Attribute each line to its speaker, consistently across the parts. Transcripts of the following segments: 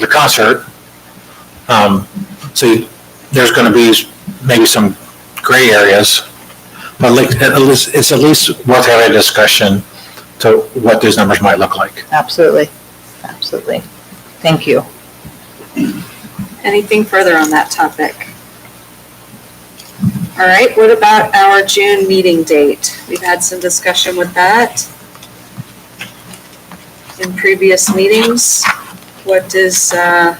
Speaker 1: the concert. Um, so you- there's gonna be maybe some gray areas. But like, at least, it's at least worth having a discussion to what those numbers might look like.
Speaker 2: Absolutely, absolutely. Thank you.
Speaker 3: Anything further on that topic? All right, what about our June meeting date? We've had some discussion with that in previous meetings. What is, uh,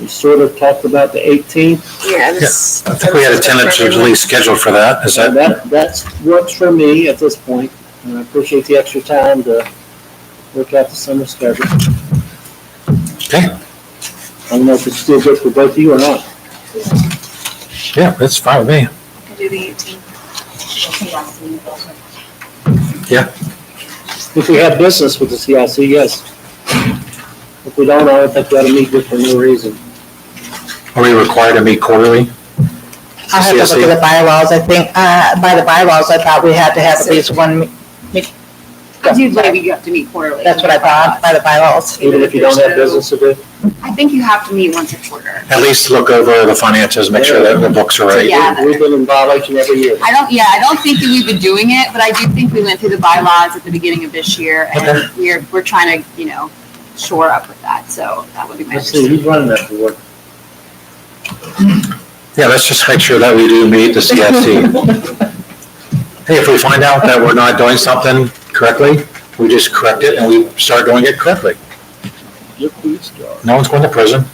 Speaker 4: We sort of talked about the 18th.
Speaker 3: yeah, this.
Speaker 1: I think we had a tentative release scheduled for that, is that?
Speaker 4: That, that's, works for me at this point, and I appreciate the extra time to work out the summer schedule. I
Speaker 1: Okay,
Speaker 4: don't know if it's still good for both of you or not.
Speaker 1: yeah, that's fine with me.
Speaker 3: Do the 18th.
Speaker 4: If we have business with the CIC, yes. If we don't, I don't think we ought to meet with for no reason.
Speaker 1: Are we required to meet quarterly?
Speaker 2: I'll have to look at the bylaws, I think, uh, by the bylaws, I thought we had to have at least one, me-
Speaker 5: I do believe you have to meet quarterly.
Speaker 2: that's what I thought, by the bylaws.
Speaker 4: Even if you don't have
Speaker 3: There's no-
Speaker 4: business to do,
Speaker 5: I think you have to meet once a quarter.
Speaker 1: At least look over the finances, make sure that the books are right.
Speaker 5: Yeah.
Speaker 4: we've been in violation every year.
Speaker 5: I don't, yeah, I don't think that we've been doing it, but I do think we went through the bylaws at the beginning of this year
Speaker 1: Okay.
Speaker 5: and we're, we're trying to, you know, shore up with that. So that would be my.
Speaker 4: Let's see, who's running that board?
Speaker 1: Yeah, let's just make sure that we do meet the CFC. Hey, if we find out that we're not doing something correctly, we just correct it and we start doing it correctly.
Speaker 4: Your police dog.
Speaker 1: No one's going to prison.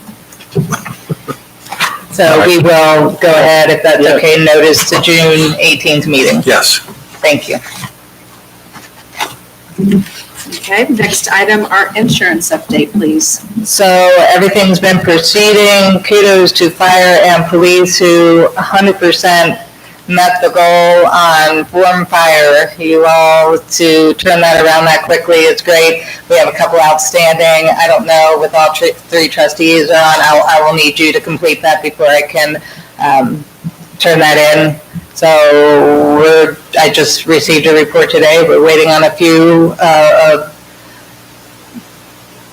Speaker 2: So we will go ahead, if that's
Speaker 4: Yeah.
Speaker 2: okay, notice the June 18th meeting.
Speaker 1: Yes.
Speaker 2: Thank you.
Speaker 3: Okay, next item, our insurance update, please.
Speaker 2: So everything's been proceeding. Kudos to fire and police who 100% met the goal on form fire. You all to turn that around that quickly is great. We have a couple outstanding. I don't know, with all tr- three trustees on, I'll- I will need you to complete that before I can um, turn that in. So we're, I just received a report today. We're waiting on a few uh, of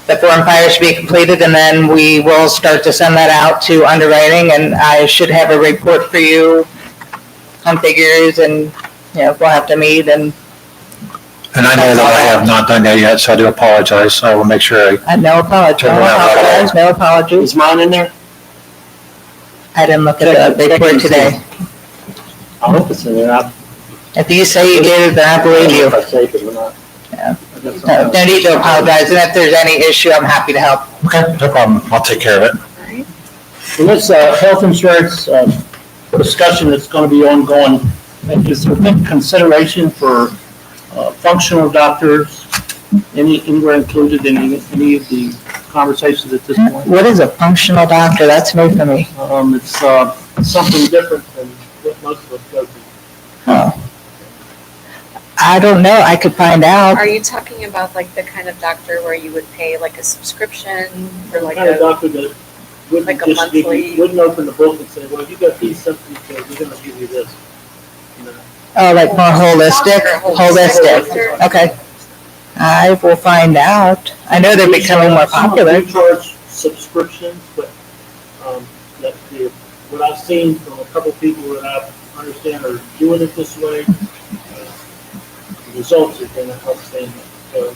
Speaker 2: the form fire should be completed, and then we will start to send that out to underwriting, and I should have a report for you on figures, and, you know, we'll have to meet, and
Speaker 1: And I know that I have not done that yet, so I do apologize. I will make sure I
Speaker 2: uh, no apologies,
Speaker 1: Turn
Speaker 2: no
Speaker 1: around, right
Speaker 2: apologies, no apologies.
Speaker 4: Is mine in there?
Speaker 2: I didn't look at the
Speaker 4: Check- check
Speaker 2: report
Speaker 4: and see.
Speaker 2: today.
Speaker 4: I hope it's in there. I
Speaker 2: If you say you did, it, then I believe
Speaker 4: if
Speaker 2: you.
Speaker 4: I saved it or not.
Speaker 2: Yeah.
Speaker 4: I got something
Speaker 2: No
Speaker 4: else.
Speaker 2: no need to apologize, and if there's any issue, I'm happy to help.
Speaker 1: Okay, no problem. I'll take care of it.
Speaker 3: All right,
Speaker 4: Well, this uh, health insurance uh, discussion that's going to be ongoing, is there any consideration for uh, functional doctors? Any, anywhere included in any any of the conversations at this point?
Speaker 2: What is a functional doctor? That's new for me.
Speaker 4: Um, It's uh, something different than what most of us go through.
Speaker 2: I don't know, I could find out.
Speaker 3: Are you talking about like the kind of doctor where you would pay like a subscription or like
Speaker 4: Kind of
Speaker 3: a?
Speaker 4: doctor that wouldn't
Speaker 3: Like a
Speaker 4: just give you,
Speaker 3: monthly-
Speaker 4: wouldn't open the book and say, well, you got these symptoms, so we're going to give you this. You know,
Speaker 2: Oh, like more holistic,
Speaker 3: Oh,
Speaker 2: holistic. Okay. I will find out. I know they're becoming more
Speaker 4: Some of
Speaker 2: popular.
Speaker 4: them charge subscriptions, but, um, that the, what I've seen from a couple people that I understand are doing it this way, uh, the results have been outstanding. So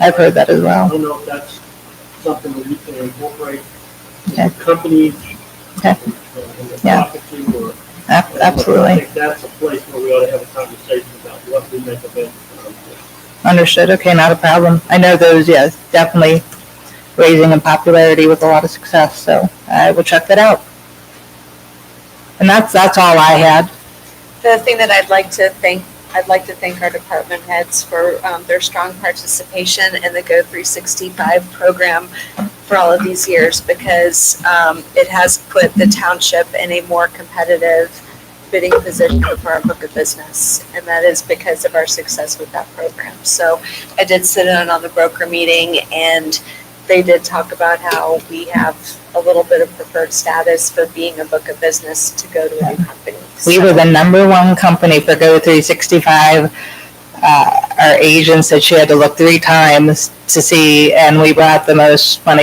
Speaker 2: I've heard that as
Speaker 4: I
Speaker 2: well.
Speaker 4: don't know if that's something that you can incorporate in
Speaker 2: Okay.
Speaker 4: the company.
Speaker 2: Okay.
Speaker 4: uh, in the
Speaker 2: Yeah.
Speaker 4: property or-
Speaker 2: Ab-
Speaker 4: I
Speaker 2: Absolutely.
Speaker 4: think that's a place where we ought to have a conversation about what we make of it.
Speaker 2: Understood. Okay, not a problem. I know those, yes, definitely raising in popularity with a lot of success, so I will check that out. And that's, that's all I had.
Speaker 3: The thing that I'd like to thank, I'd like to thank our department heads for um, their strong participation in the Go 365 program for all of these years because um, it has put the township in a more competitive bidding position for our book of business. And that is because of our success with that program. So I did sit in on the broker meeting and they did talk about how we have a little bit of preferred status for being a book of business to go to a new company.
Speaker 2: We
Speaker 3: So-
Speaker 2: were the number one company for Go365, uh, our agents that she had to look three times to see, and we brought the most money